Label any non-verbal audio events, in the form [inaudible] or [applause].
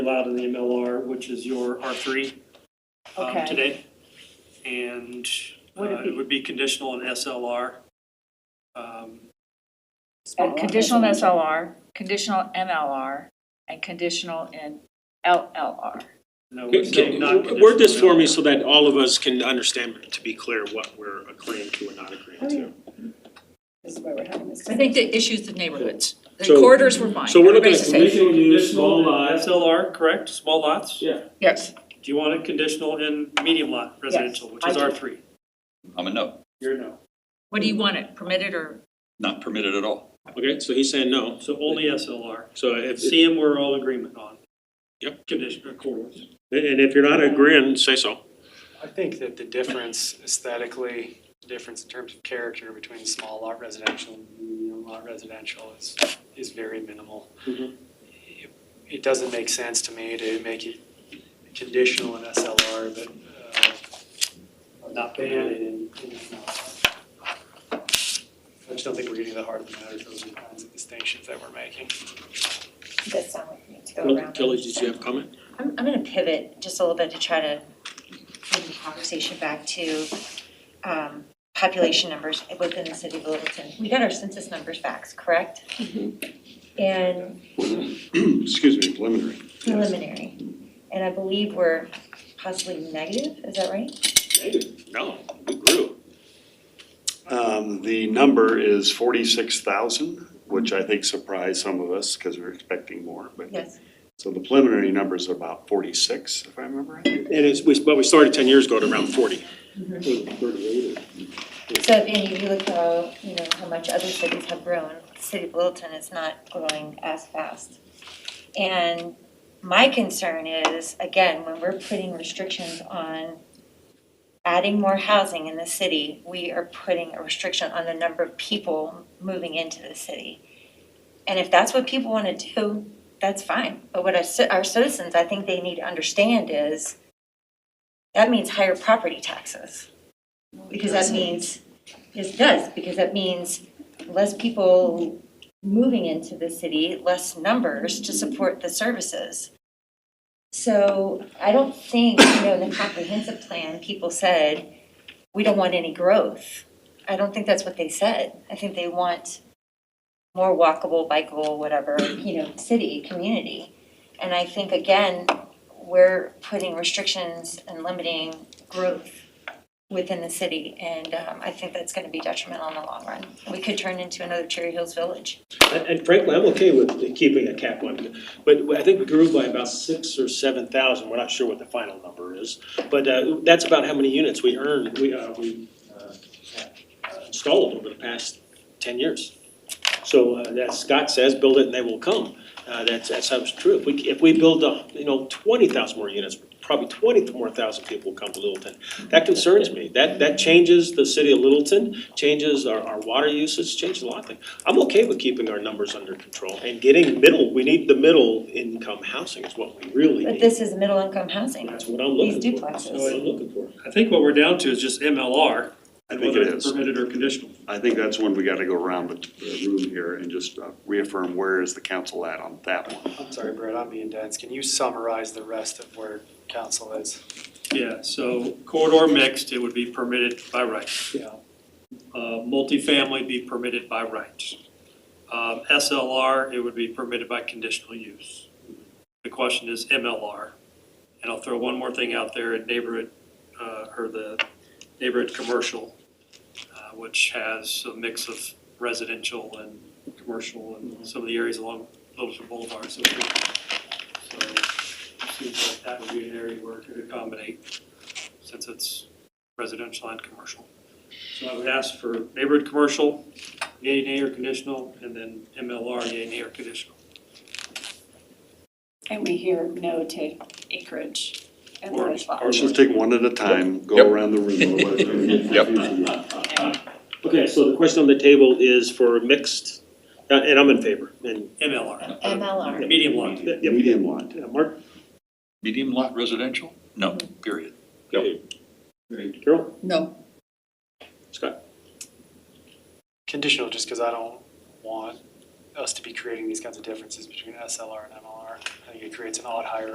allowed in the MLR, which is your R3 um, Okay. today. And uh, Would it be- it would be conditional in SLR. Um, Uh, Conditional in SLR, conditional MLR, and conditional in LLR. no, Can- it's can- not Word this conditional for in me LLR. so that all of us can understand, to be clear, what we're agreeing to and not agreeing to. This is why we're having this. I think the issue's the neighborhoods. The So- corridors were fine. So we're looking at Everybody's safe. conditional use, small Conditional in lots. SLR, correct? Small lots? Yeah. Yes, Do you want it conditional in medium lot residential, which I is do. R3? I'm a no, You're no. what do you want it, permitted or? not permitted at all. Okay, so he's saying no. So only SLR. So if, and CM, we're all in agreement on. Yep. Conditional, corridors. if you're not agreeing, say so. I think that the difference aesthetically, the difference in terms of character between small lot residential and medium lot residential is, is very minimal. Mhm. It- It doesn't make sense to me to make it conditional in SLR, but, uh, Not not ban it in, in, uh, I just don't think we're getting to the heart of the matter, those are the kinds of distinctions that we're making. That sound like we need to go around. Kelly, did you have a comment? I'm, I'm gonna pivot just a little bit to try to bring the conversation back to, um, population numbers within the city of Littleton. We got our census numbers back, correct? Mm-hmm. And [clears throat] excuse me, preliminary. preliminary, and I believe we're possibly negative, is that right? No, we grew. Um, the number is forty-six thousand, which I think surprised some of us because we were expecting more, but. Yes. So the preliminary number's about forty-six, if I remember right. And it's, we, but we started ten years ago at around forty. So if Andy, if you look how, you know, how much other cities have grown, the city of Littleton is not growing as fast. And my concern is, again, when we're putting restrictions on adding more housing in the city, we are putting a restriction on the number of people moving into the city. And if that's what people want to do, that's fine. But what our ci- our citizens, I think they need to understand is that means higher property taxes. Because that means, it does, because that means less people moving into the city, less numbers to support the services. So I don't think, you know, in the comprehensive plan, people said, we don't want any growth. I don't think that's what they said. I think they want more walkable, bikeable, whatever, you know, city, community. And I think, again, we're putting restrictions and limiting growth within the city, and um, I think that's going to be detrimental in the long run. We could turn into another Cherry Hills Village. And and frankly, I'm okay with keeping a cap on, but I think we grew by about six or seven thousand, we're not sure what the final number is. But uh, that's about how many units we earned, we, uh, we uh, installed over the past ten years. So uh, as Scott says, build it and they will come, Uh, that's, that's how it's true. If we, if we build, uh, you know, twenty thousand more units, probably twenty more thousand people will come to Littleton. That concerns me, that, that changes the city of Littleton, changes our, our water usage, changes a lot of things. I'm okay with keeping our numbers under control and getting middle, we need the middle income housing is what we really But need. this is middle-income housing. That's what I'm looking for. These That's duplexes. what I'm looking for. I think what we're down to is just MLR. I and think whether it it's is. Permitted or conditional. I think that's when we gotta go around the the room here and just uh, reaffirm where is the council at on that one. I'm sorry, Brett, I'm being dense, can you summarize the rest of where council is? Yeah, so corridor mixed, it would be permitted by right. Yeah. Uh, multifamily be permitted by right. Um, SLR, it would be permitted by conditional use. The question is MLR. And I'll throw one more thing out there, neighborhood, uh, or the neighborhood commercial, uh, which has a mix of residential and commercial and some of the areas along Littleton Boulevard, so. so seems like that would be an area where it could accommodate, since it's residential and commercial. So I would ask for neighborhood commercial, yay, nay, or conditional, and then MLR, yay, nay, or conditional. And we hear no to acreage and Or- large lot. or- Let's just take one at a time, go Yep. around the room. otherwise we're gonna get [laughs] Yep. confused again. Okay, so the question on the table is for mixed, uh, and I'm in favor, and. MLR, MLR. medium lot. yeah, Medium lot. yeah, Mark, Medium lot residential? No, period. Carol, No. Scott, conditional just because I don't want us to be creating these kinds of differences between SLR and MLR. I think it creates an odd hierarchy